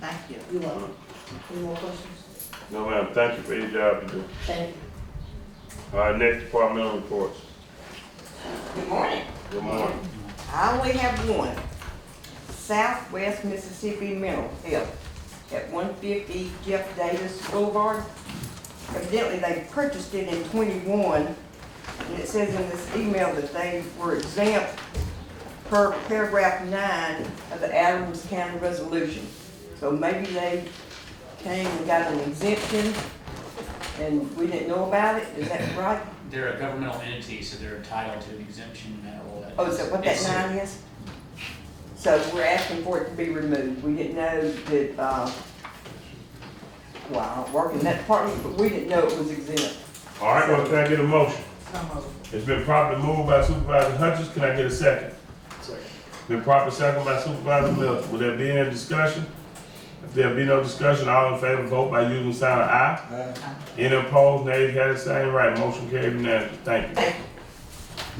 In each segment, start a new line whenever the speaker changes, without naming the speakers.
Thank you.
You're welcome. Any more questions?
No, ma'am, thank you for your job you do.
Thank you.
All right, next departmental reports.
Good morning.
Good morning.
I only have one. Southwest Mississippi Mental Health at one fifty Jeff Davis Boulevard. Evidently, they purchased it in twenty-one, and it says in this email that they were exempt per paragraph nine of the Adams County Resolution. So maybe they came and got an exemption, and we didn't know about it, is that right?
They're a governmental entity, so they're entitled to an exemption and all that.
Oh, is that what that
It's-
nine is? So we're asking for it to be removed. We didn't know that, uh, well, I don't work in that department, but we didn't know it was exempt.
All right, well, can I get a motion?
So moved.
It's been properly moved by Supervisor Hutchins, can I get a second? Been properly second by Supervisor Miller, will there be any discussion? If there be no discussion, all in favor, vote by using the sign of aye. Any opposed, nays, had the same right, motion carried unanimously, thank you.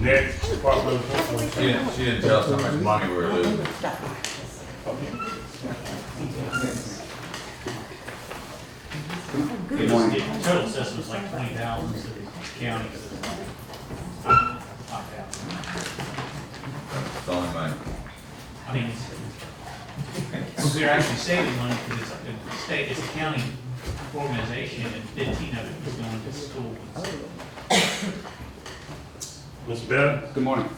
Next departmental report.
She didn't, she didn't tell us how much money we were uh, losing.
It was, the total assessment's like twenty thousand, so the county is like, not that.
It's the only money.
I mean, it's, we're actually saving money because it's, the state, it's a county organization and fifteen of it is going to schools.
Mr. Bennett?
Good morning.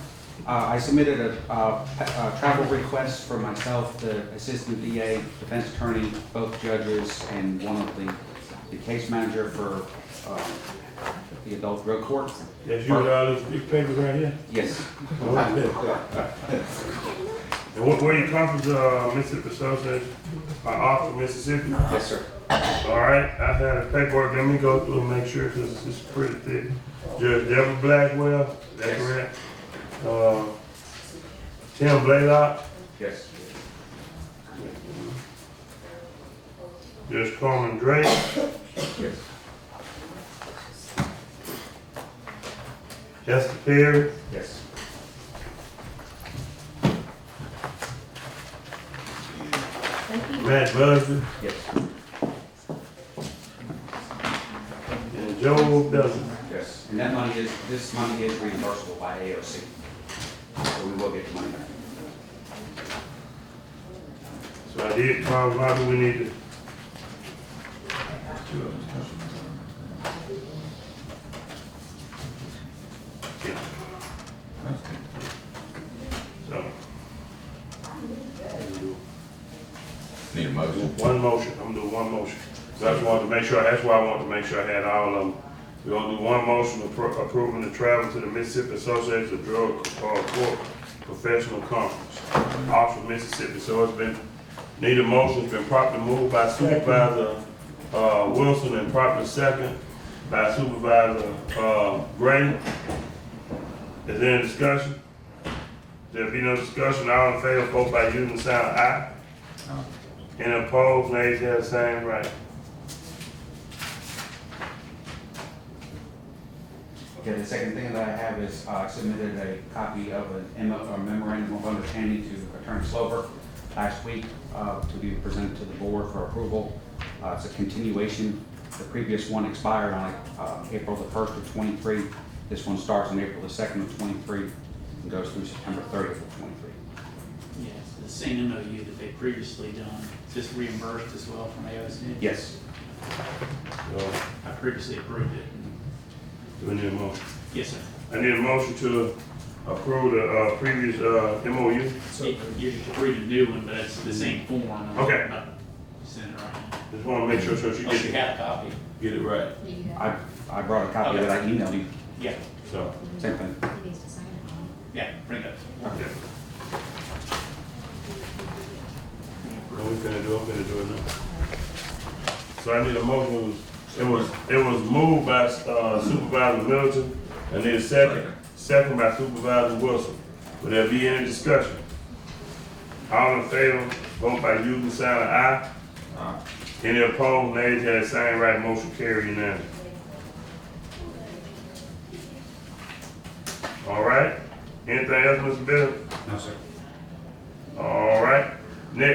Uh, I submitted a uh, pa- uh, travel request for myself, the assistant DA, defense attorney, both judges, and one of the the case manager for uh, the adult drug court.
Yes, you with all these big papers right here?
Yes,
And where, where you come from, uh, Mississippi Association, uh, off of Mississippi?
yes, sir.
All right, I had a paperwork, let me go through and make sure, cause it's pretty thick. Judge Devin Blackwell, that's
Yes.
correct. Uh, Tim Blaylock,
Yes.
Judge Coleman Drake,
Yes.
Esther Perry,
Yes.
Matt Busby,
Yes.
and Joe Dustin.
Yes. And that money is, this money is reimbursable by AOC. So we will get the money back.
So I did call Bobby, we need to. So,
Need a motion.
one motion, I'm gonna do one motion. So I just wanted to make sure, that's why I wanted to make sure I had all of them. We're gonna do one motion appro- approving the travel to the Mississippi Association of Drug uh, Court Professional Conference, off of Mississippi. So it's been, need a motion, it's been properly moved by Supervisor, uh, Wilson and properly second by Supervisor, uh, Gray. Is there any discussion? There be no discussion, all in favor, vote by using the sign of aye. And opposed, nays have the same right.
Okay, the second thing that I have is uh, I submitted a copy of an M- a memorandum of understanding to Attorney Slover last week uh, to be presented to the board for approval. Uh, It's a continuation. The previous one expired on uh, April the 1st of '23. This one starts on April the 2nd of '23 and goes through September 30th of '23.
Yes, the same MOU that they previously done, just reimbursed as well from AOC.
Yes.
So,
I previously approved it.
do we need a motion?
Yes, sir.
I need a motion to approve the, uh, previous, uh, MOU.
You you should read a new one, but it's the same form. I'm
Okay.
not sending it right
Just wanna make sure, so you
now. Oh, you
get it,
have a copy?
get it right,
I I brought a copy that I emailed you.
Yeah,
so,
Same thing.
He needs to sign it.
yeah, bring it up.
okay. What we finna do, I'm finna do it now. So I need a motion, it was, it was moved by, uh, Supervisor Middleton, I need a second, second by Supervisor Wilson. Will there be any discussion? All in favor, vote by using sign of aye.
Aye.
Any opposed, nays have the same right, motion carried unanimous. All right, anything else, Mr. Bennett?
No, sir.
All right,